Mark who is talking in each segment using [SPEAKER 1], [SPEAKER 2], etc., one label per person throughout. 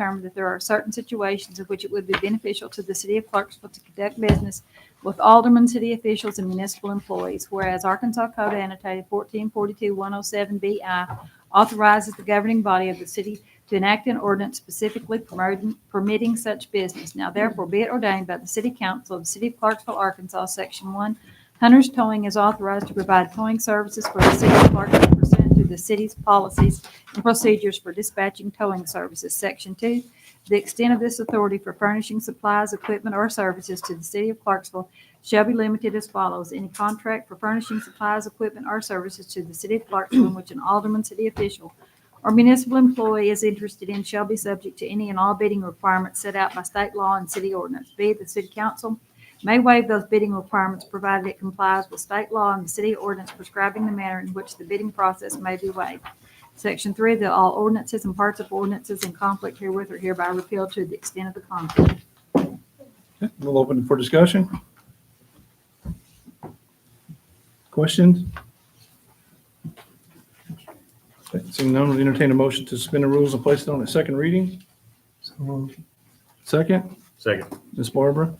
[SPEAKER 1] determined that there are certain situations in which it would be beneficial to the city of Clarksville to conduct business with aldermen, city officials, and municipal employees, whereas Arkansas Code annotated fourteen forty-two one oh seven BI authorizes the governing body of the city to enact an ordinance specifically promoting, permitting such business. Now therefore be it ordained by the City Council of the City of Clarksville, Arkansas, Section One, Hunter's Towing is authorized to provide towing services for the city of Clarksville pursuant to the city's policies and procedures for dispatching towing services. Section two, the extent of this authority for furnishing supplies, equipment, or services to the city of Clarksville shall be limited as follows. Any contract for furnishing supplies, equipment, or services to the city of Clarksville in which an alderman, city official, or municipal employee is interested in shall be subject to any and all bidding requirements set out by state law and city ordinance. B, the city council may waive those bidding requirements provided it complies with state law and the city ordinance prescribing the manner in which the bidding process may be waived. Section three, that all ordinances and parts of ordinances in conflict herewith are hereby repealed to the extent of the conflict.
[SPEAKER 2] Okay, We'll open for discussion. Questions? Okay, Seeing none, we entertain a motion to suspend the rules and place it on its second reading. Second,
[SPEAKER 3] Second.
[SPEAKER 2] Ms. Barbara?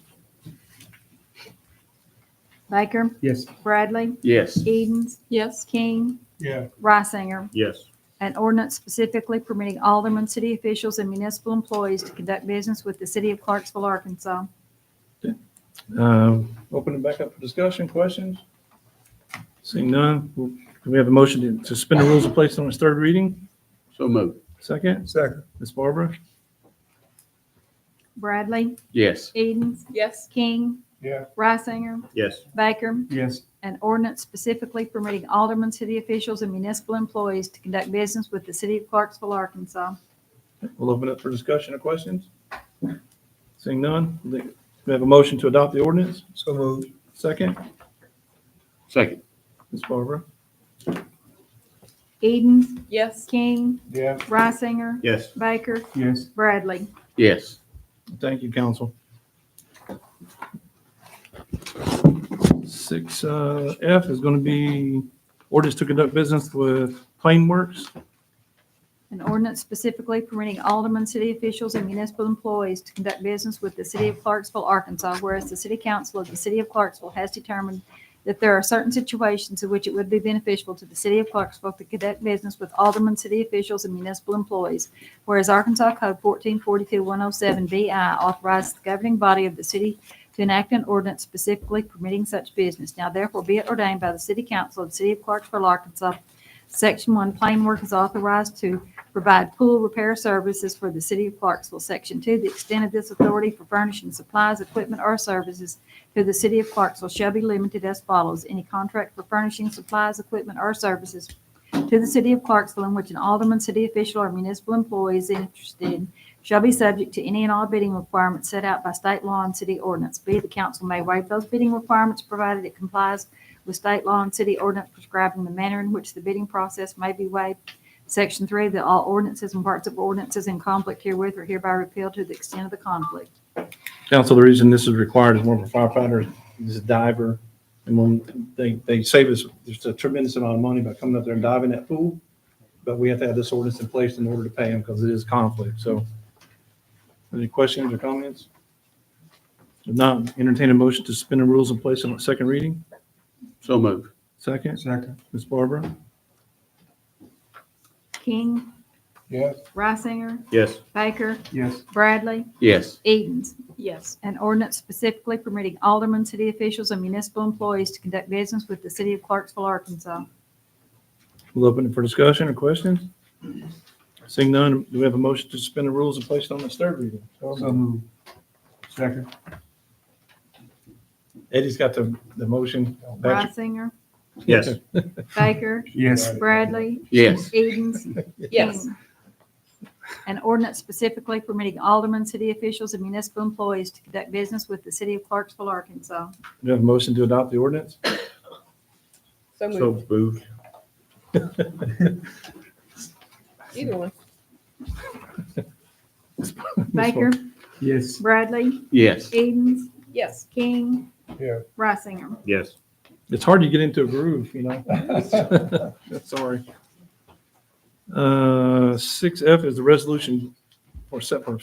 [SPEAKER 1] Baker,
[SPEAKER 3] Yes.
[SPEAKER 1] Bradley,
[SPEAKER 3] Yes.
[SPEAKER 1] Edens. Yes. King,
[SPEAKER 4] Yeah,
[SPEAKER 1] Reisinger.
[SPEAKER 3] Yes.
[SPEAKER 1] An ordinance specifically permitting aldermen, city officials, and municipal employees to conduct business with the city of Clarksville, Arkansas.
[SPEAKER 2] Um, Open it back up for discussion, questions? Seeing none, we'll- we have a motion to- to suspend the rules and place it on its third reading.
[SPEAKER 3] So moved.
[SPEAKER 2] Second,
[SPEAKER 4] second,
[SPEAKER 2] Ms. Barbara?
[SPEAKER 1] Bradley,
[SPEAKER 3] Yes.
[SPEAKER 1] Edens. Yes. King,
[SPEAKER 4] yeah.
[SPEAKER 1] Reisinger,
[SPEAKER 3] Yes.
[SPEAKER 1] Baker,
[SPEAKER 4] Yes.
[SPEAKER 1] An ordinance specifically permitting aldermen, city officials, and municipal employees to conduct business with the city of Clarksville, Arkansas.
[SPEAKER 2] We'll open up for discussion or questions. Seeing none, we have a motion to adopt the ordinance.
[SPEAKER 4] So moved.
[SPEAKER 2] Second,
[SPEAKER 3] Second.
[SPEAKER 2] Ms. Barbara.
[SPEAKER 1] Edens? Yes. King?
[SPEAKER 4] Yeah.
[SPEAKER 1] Reisinger?
[SPEAKER 3] Yes.
[SPEAKER 1] Baker?
[SPEAKER 4] Yes.
[SPEAKER 1] Bradley?
[SPEAKER 3] Yes.
[SPEAKER 2] Thank you, council. Six uh, F is going to be ordinance to conduct business with Plain Works.
[SPEAKER 1] An ordinance specifically permitting aldermen, city officials, and municipal employees to conduct business with the city of Clarksville, Arkansas, whereas the city council of the city of Clarksville has determined that there are certain situations in which it would be beneficial to the city of Clarksville to conduct business with aldermen, city officials, and municipal employees, whereas Arkansas Code fourteen forty-two one oh seven BI authorizes the governing body of the city to enact an ordinance specifically permitting such business. Now therefore be it ordained by the city council of the city of Clarksville, Arkansas, Section one, plain work is authorized to provide pool repair services for the city of Clarksville. Section two, the extent of this authority for furnishing supplies, equipment, or services to the city of Clarksville shall be limited as follows. Any contract for furnishing supplies, equipment, or services to the city of Clarksville in which an alderman, city official, or municipal employee is interested shall be subject to any and all bidding requirements set out by state law and city ordinance. B, the council may waive those bidding requirements provided it complies with state law and city ordinance prescribing the manner in which the bidding process may be waived Section three, that all ordinances and parts of ordinances in conflict herewith are hereby repealed to the extent of the conflict.
[SPEAKER 2] Council, the reason this is required is more of a firefighter, he's a diver. And when they, they save us, there's a tremendous amount of money by coming up there and diving that pool. But we have to have this ordinance in place in order to pay him because it is conflict, so. Any questions or comments? If not, entertain a motion to suspend the rules and place it on second reading.
[SPEAKER 3] So moved.
[SPEAKER 2] Second,
[SPEAKER 4] Second.
[SPEAKER 2] Ms. Barbara?
[SPEAKER 1] King,
[SPEAKER 4] Yes.
[SPEAKER 1] Reisinger,
[SPEAKER 3] Yes.
[SPEAKER 1] Baker,
[SPEAKER 4] Yes.
[SPEAKER 1] Bradley,
[SPEAKER 3] Yes.
[SPEAKER 1] Edens. Yes. An ordinance specifically permitting aldermen, city officials, and municipal employees to conduct business with the city of Clarksville, Arkansas.
[SPEAKER 2] We'll open it for discussion or questions. Seeing none, do we have a motion to suspend the rules and place it on its third reading?
[SPEAKER 4] So moved. Second.
[SPEAKER 2] Eddie's got the, the motion. Patrick-
[SPEAKER 1] Reisinger,
[SPEAKER 3] Yes.
[SPEAKER 1] Baker,
[SPEAKER 4] Yes.
[SPEAKER 1] Bradley,
[SPEAKER 3] Yes.
[SPEAKER 1] Edens.
[SPEAKER 5] Yes.
[SPEAKER 1] King. An ordinance specifically permitting aldermen, city officials, and municipal employees to conduct business with the city of Clarksville, Arkansas.
[SPEAKER 2] Do you have a motion to adopt the ordinance?
[SPEAKER 5] So moved.
[SPEAKER 3] So moved.
[SPEAKER 5] Either one.
[SPEAKER 1] Baker,
[SPEAKER 4] Yes.
[SPEAKER 1] Bradley,
[SPEAKER 3] Yes.
[SPEAKER 1] Edens,
[SPEAKER 5] Yes.
[SPEAKER 1] King,
[SPEAKER 4] Yeah.
[SPEAKER 1] Reisinger.
[SPEAKER 3] Yes.
[SPEAKER 2] It's hard to get into a groove, you know? Sorry. Uh, six F is the resolution or set for